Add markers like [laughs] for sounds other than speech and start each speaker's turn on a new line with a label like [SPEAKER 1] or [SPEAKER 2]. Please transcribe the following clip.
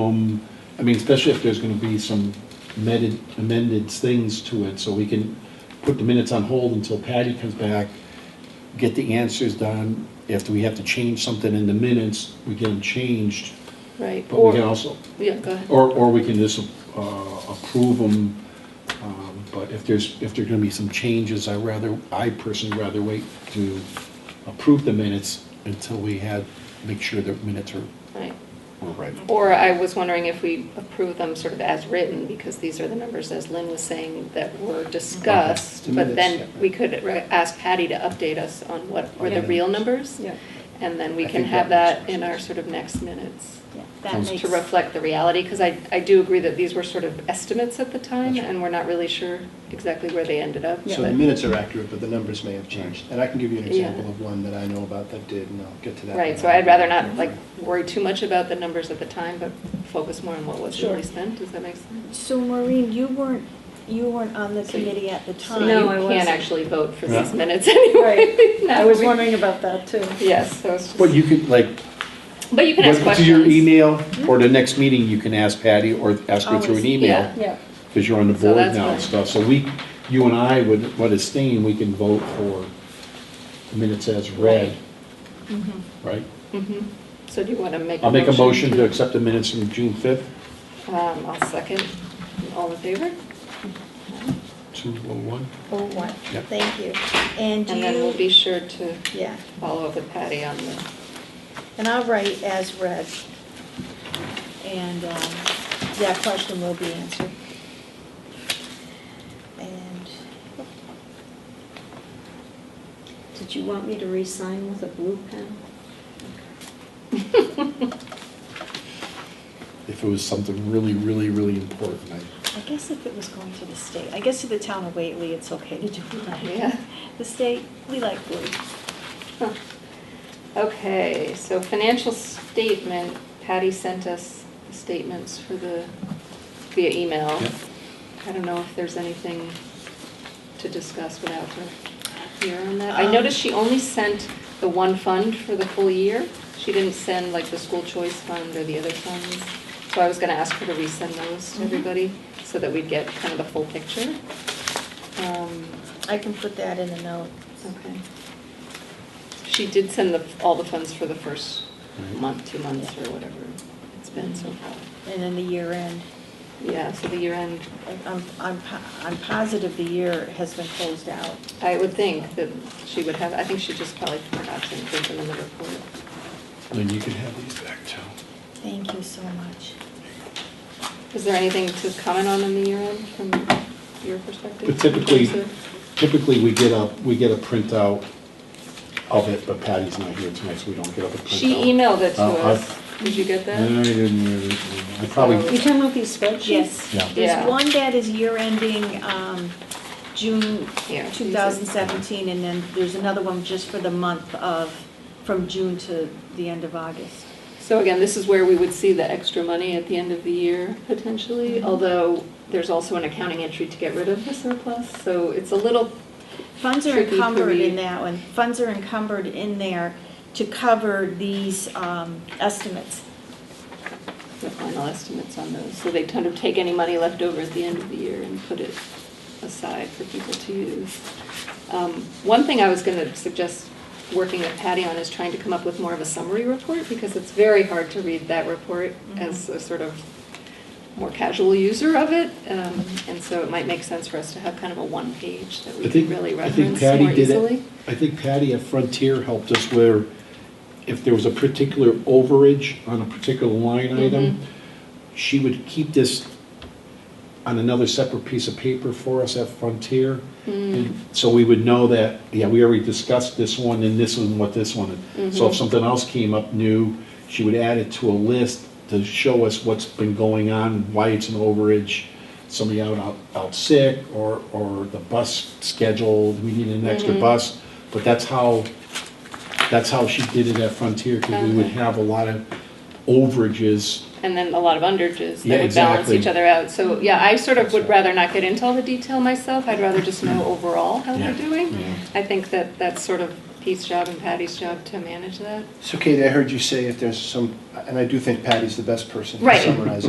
[SPEAKER 1] Um, I mean, especially if there's gonna be some amended, amended things to it, so we can put the minutes on hold until Patty comes back, get the answers done. If we have to change something in the minutes, we get them changed,
[SPEAKER 2] Right,
[SPEAKER 1] but we can
[SPEAKER 2] or,
[SPEAKER 1] also, Oh.
[SPEAKER 2] yeah, go ahead.
[SPEAKER 1] or, or we can just, uh, approve them. Um, But if there's, if there're gonna be some changes, I rather, I personally rather wait to approve the minutes until we had, make sure the minutes are,
[SPEAKER 2] Right.
[SPEAKER 1] are Oh, right.
[SPEAKER 2] Or I was wondering if we approve them sort of as written, because these are the numbers, as Lynn was saying, that were discussed.
[SPEAKER 1] Okay.
[SPEAKER 2] But then we could re- ask Patty to update us on what were the
[SPEAKER 1] Yeah.
[SPEAKER 2] real numbers.
[SPEAKER 3] Yeah,
[SPEAKER 2] And then we
[SPEAKER 1] I
[SPEAKER 2] can
[SPEAKER 1] think
[SPEAKER 2] have
[SPEAKER 1] that
[SPEAKER 2] that
[SPEAKER 1] makes
[SPEAKER 2] in our
[SPEAKER 1] sense.
[SPEAKER 2] sort of next minutes
[SPEAKER 3] yeah, that
[SPEAKER 1] Sounds
[SPEAKER 3] makes.
[SPEAKER 2] to reflect the reality, because I, I do agree that these were sort of estimates at the time,
[SPEAKER 1] That's right.
[SPEAKER 2] and we're not really sure exactly where they ended up.
[SPEAKER 4] So
[SPEAKER 2] but-
[SPEAKER 4] the minutes are accurate, but the numbers may have changed. And I can give you an
[SPEAKER 2] Yeah.
[SPEAKER 4] example of one that I know about that did, and I'll get to that.
[SPEAKER 2] Right,
[SPEAKER 4] in a
[SPEAKER 2] so I'd rather not
[SPEAKER 4] minute.
[SPEAKER 2] like worry too much about the numbers at the time, but focus more on what was
[SPEAKER 3] Sure.
[SPEAKER 2] really spent, does that make sense?
[SPEAKER 3] So Maureen, you weren't, you weren't on the committee at the
[SPEAKER 2] So
[SPEAKER 3] time.
[SPEAKER 5] No, I
[SPEAKER 2] you can't
[SPEAKER 5] wasn't.
[SPEAKER 2] actually vote for these
[SPEAKER 1] Yeah.
[SPEAKER 2] minutes [laughs] anyway.
[SPEAKER 5] Right.
[SPEAKER 2] Now
[SPEAKER 5] I was
[SPEAKER 2] we-
[SPEAKER 5] wondering about that too.
[SPEAKER 2] Yes, so it's
[SPEAKER 1] But
[SPEAKER 2] just,
[SPEAKER 1] you could, like,
[SPEAKER 2] but you can ask
[SPEAKER 1] Whether
[SPEAKER 2] questions. Hmm?
[SPEAKER 1] To your email, or the next meeting, you can ask Patty, or ask her through
[SPEAKER 3] Always,
[SPEAKER 1] an
[SPEAKER 2] Oh, yeah.
[SPEAKER 1] email,
[SPEAKER 5] Yeah,
[SPEAKER 1] because you're on the
[SPEAKER 2] So
[SPEAKER 1] board
[SPEAKER 2] that's
[SPEAKER 1] now and
[SPEAKER 2] fine.
[SPEAKER 1] stuff. So we, you and I would, what is staying, we can vote for the minutes as read, right?
[SPEAKER 2] Mhm. So do you want to make a motion?
[SPEAKER 1] I'll make a motion to accept the minutes from June fifth,
[SPEAKER 2] Um, I'll second. All in favor?
[SPEAKER 1] two oh one.
[SPEAKER 3] Oh, what?
[SPEAKER 1] Yeah.
[SPEAKER 3] Thank you. And do
[SPEAKER 2] And then we'll be
[SPEAKER 3] you,
[SPEAKER 2] sure to
[SPEAKER 3] yeah,
[SPEAKER 2] follow up with Patty on the,
[SPEAKER 3] and I'll write as read. And um, that question will be answered. And,
[SPEAKER 5] did you want me to re-sign with a blue pen?
[SPEAKER 2] [laughs]
[SPEAKER 1] If it was something really, really, really important, I,
[SPEAKER 3] I guess if it was going to the state, I guess to the town of Whately, it's okay to do that.
[SPEAKER 2] yeah.
[SPEAKER 3] The state, we like blue.
[SPEAKER 2] Huh. Okay, so financial statement, Patty sent us the statements for the, via email.
[SPEAKER 1] Yep.
[SPEAKER 2] I don't know if there's anything to discuss without her here on that. I noticed she only sent the one fund for the full year. She didn't send like the school choice fund or the other funds. So I was gonna ask her to resend those to
[SPEAKER 3] Mhm.
[SPEAKER 2] everybody so that we'd get kind of the full picture. Um,
[SPEAKER 3] I can put that in a note.
[SPEAKER 2] Okay. She did send the, all the funds for the first
[SPEAKER 1] Right.
[SPEAKER 2] month, two months, or whatever it's been so far.
[SPEAKER 3] And then the year end,
[SPEAKER 2] Yeah, so the year end,
[SPEAKER 3] I'm, I'm, po- I'm positive the year has been closed out.
[SPEAKER 2] I would think that she would have, I think she just probably forgot to include them in the report.
[SPEAKER 1] then you can have these back too.
[SPEAKER 3] Thank you so much.
[SPEAKER 2] Is there anything to comment on in the year end from your perspective?
[SPEAKER 1] But typically,
[SPEAKER 2] Lisa?
[SPEAKER 1] typically we get a, we get a printout of it, but Patty's not here tonight, so we don't get a printout.
[SPEAKER 2] She emailed it to
[SPEAKER 1] Uh, I-
[SPEAKER 2] us. Did you get
[SPEAKER 1] No, I
[SPEAKER 2] that?
[SPEAKER 1] didn't really, I probably,
[SPEAKER 5] You talking about these spreadsheets?
[SPEAKER 3] Yes.
[SPEAKER 1] Yeah.
[SPEAKER 2] Yeah.
[SPEAKER 3] There's one that is year ending, um, June
[SPEAKER 2] Here.
[SPEAKER 3] two thousand seventeen, and then there's another one just for the month of, from June to the end of August.
[SPEAKER 2] So again, this is where we would see the extra money at the end of the year potentially, although there's also an accounting entry to get rid of the surplus, so it's a little,
[SPEAKER 3] Funds are
[SPEAKER 2] Tricky,
[SPEAKER 3] encumbered
[SPEAKER 2] tricky.
[SPEAKER 3] in that one, funds are encumbered in there to cover these, um, estimates.
[SPEAKER 2] the final estimates on those. So they kind of take any money left over at the end of the year and put it aside for people to use. Um, One thing I was going to suggest working with Patty on is trying to come up with more of a summary report, because it's very hard to read that report as a sort of more casual user of it. Um, And so it might make sense for us to have kind of a one-page that
[SPEAKER 1] I
[SPEAKER 2] we can
[SPEAKER 1] think,
[SPEAKER 2] really
[SPEAKER 1] I
[SPEAKER 2] reference
[SPEAKER 1] think
[SPEAKER 2] more
[SPEAKER 1] Patty did it.
[SPEAKER 2] easily.
[SPEAKER 1] I think Patty at Frontier helped us where if there was a particular overage on a particular line
[SPEAKER 2] Mhm.
[SPEAKER 1] item, she would keep this on another separate piece of paper for us at Frontier.
[SPEAKER 2] Mm.
[SPEAKER 1] And So we would know that, yeah, we already discussed this one and this one, what this one. is. So
[SPEAKER 2] Mhm.
[SPEAKER 1] if something else came up new, she would add it to a list to show us what's been going on, why it's an overage, somebody out, out, out sick, or, or the bus scheduled, we need an extra
[SPEAKER 2] Mhm.
[SPEAKER 1] bus. But that's how, that's how she did it at Frontier, because we would
[SPEAKER 2] Okay.
[SPEAKER 1] have a lot of overages.
[SPEAKER 2] and then a lot of underages
[SPEAKER 1] Yeah,
[SPEAKER 2] that would balance
[SPEAKER 1] exactly.
[SPEAKER 2] each other out. So, yeah, I sort of
[SPEAKER 1] That's
[SPEAKER 2] would
[SPEAKER 1] right.
[SPEAKER 2] rather not get into all the detail myself. I'd rather just know overall how they're
[SPEAKER 1] Yeah,
[SPEAKER 2] doing.
[SPEAKER 1] yeah.
[SPEAKER 2] I think that that's sort of Pete's job and Patty's job to manage that?
[SPEAKER 4] So Katie, I heard you say if there's some, and I do think Patty's the best person to
[SPEAKER 2] Right.
[SPEAKER 4] summarize